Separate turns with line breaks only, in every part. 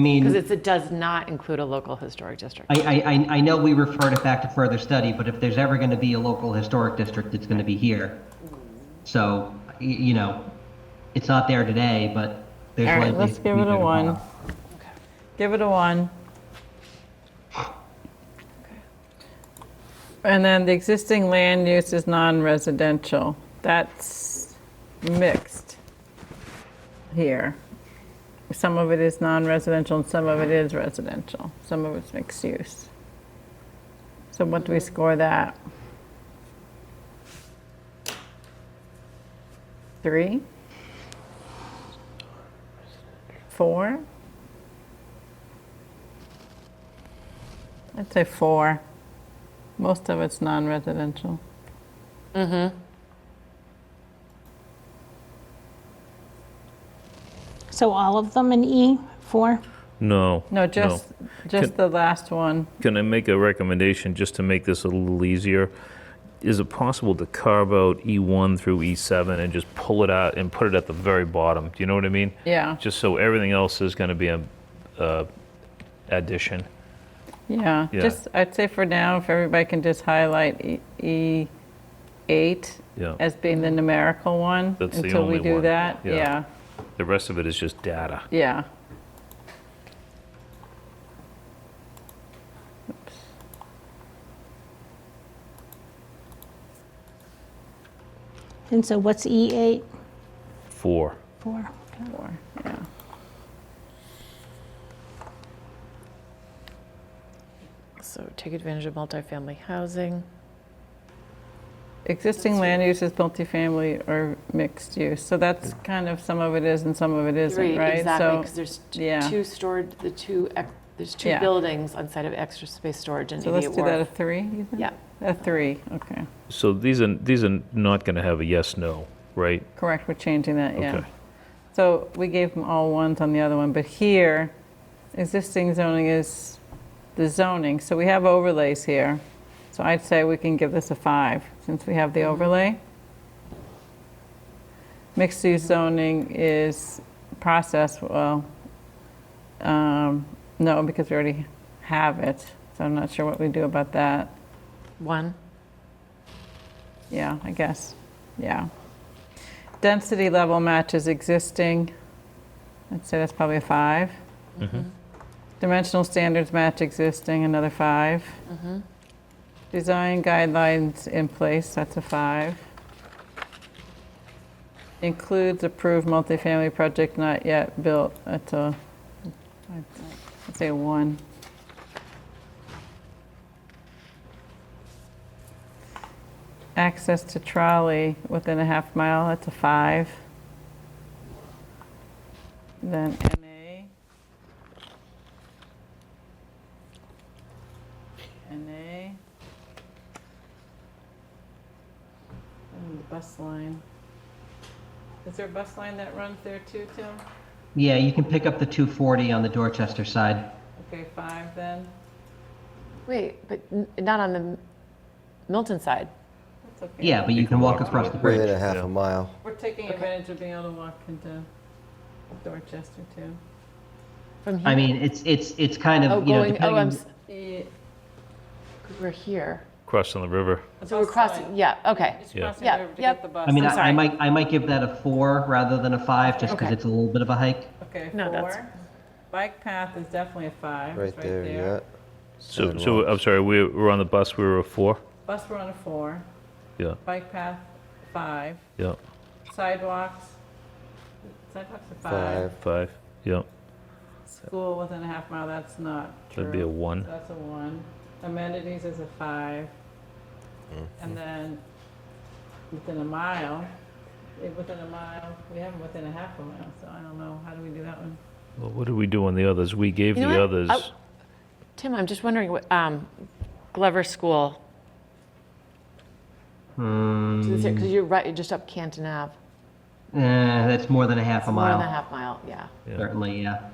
I mean,
Because it does not include a local historic district.
Mm-hmm. I, I, I- I know we refer it back to further study, but if there's ever going to be a local historic district, it's going to be here. So, y- you know, it's not there today, but there's
All
likely.
right, let's
to
give
be
it a
there
one.
tomorrow.
Give it a one. And then the existing land use is non-residential. That's mixed here. Some of it is non-residential and some of it is residential. Some of it's mixed use. So what do we score that? Three? Four? I'd say four. Most of it's non-residential.
So all of them in E, four?
No.
No, just, just the last one.
Can I make a recommendation just to make this a little easier? Is it possible to carve out E1 through E7 and just pull it out and put it at the very bottom? Do you know what I mean?
Yeah,
Just so everything else is going to be a, a addition.
yeah.
Yeah.
Just, I'd say for now, if everybody can just highlight E- E eight
Yeah.
as being the numerical one.
That's the
Until we
only
do
one.
that,
Yeah.
yeah,
The rest of it is just data.
yeah. Oops.
And so what's E eight?
Four.
Four.
Four, yeah.
So take advantage of multifamily housing.
Existing land use is multifamily or mixed use, so that's kind of, some of it is and some of it isn't,
Three,
right?
exactly,
So-
because there's t-
yeah.
two stored, the two, ex- there's two
Yeah.
buildings on site of extra space storage and
So let's
immediate
do that a
wharf.
three, you think?
Yeah,
A three, okay.
So these are these are not going to have a yes no, right?
Correct, we're changing that, yeah.
Okay.
So we gave them all ones on the other one, but here, existing zoning is the zoning, so we have overlays here. So I'd say we can give this a five, since we have the overlay. Mixed-use zoning is process, well, um, no, because we already have it, so I'm not sure what we do about that.
one.
Yeah, I guess, yeah. Density level matches existing. I'd say that's probably a five. Dimensional standards match existing, another five. Design guidelines in place, that's a five. Includes approved multifamily project not yet built, that's a, I'd say a one. access to trolley within a half mile, that's a five. Then NA. NA. And the bus line. Is there a bus line that runs there too, Tim?
Yeah, you can pick up the 240 on the Dorchester side.
Okay, five then.
Wait, but n- not on the Milton side.
That's okay.
Yeah, but you can walk across the
Within
bridge.
a half a mile.
We're taking advantage of being able to walk into Dorchester too.
From
I
here,
mean, it's, it's, it's kind
oh,
of, you know,
going, oh, I'm,
depending,
s- we're here.
Crossing the river.
So we're crossing, yeah, okay.
It's
Yeah.
crossing
Yeah,
over to
yep.
get the bus.
I mean,
I'm
I
sorry.
I might, I might give that a four rather than a five, just because
Okay.
it's a little bit of a hike.
Okay,
No, that's-
four. Bike path is definitely a five.
Right
It's
there, yeah.
So, so uh,
Sidewalks.
I'm sorry, we were on the bus, we were a four?
Bus, we're on a four.
Yeah,
Bike path, five.
yeah,
Sidewalks, sidewalks are five.
Five.
five, yeah.
School within a half mile, that's not true.
That'd be a one.
So That's a one. Amenities is a five.
Mm-hmm.
And then within a mile, eh, within a mile, we have them within a half a mile, so I don't know, how do we do that one?
Well, what did we do on the others? We gave
You know
the
what?
others.
Oh. Tim, I'm just wondering, what, um, Glover School. Because you're right, you're just up Canton Ave,
Eh, that's more than a half a
more than a
mile,
half mile, yeah.
certainly, yeah.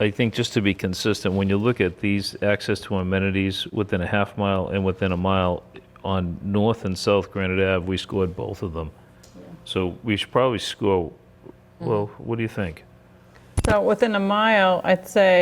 I think just to be consistent, when you look at these access to amenities within a half mile and within a mile on North and South Granite Ave, we scored both of them. So we should probably score. Well, what do you think?
So within a mile, I'd say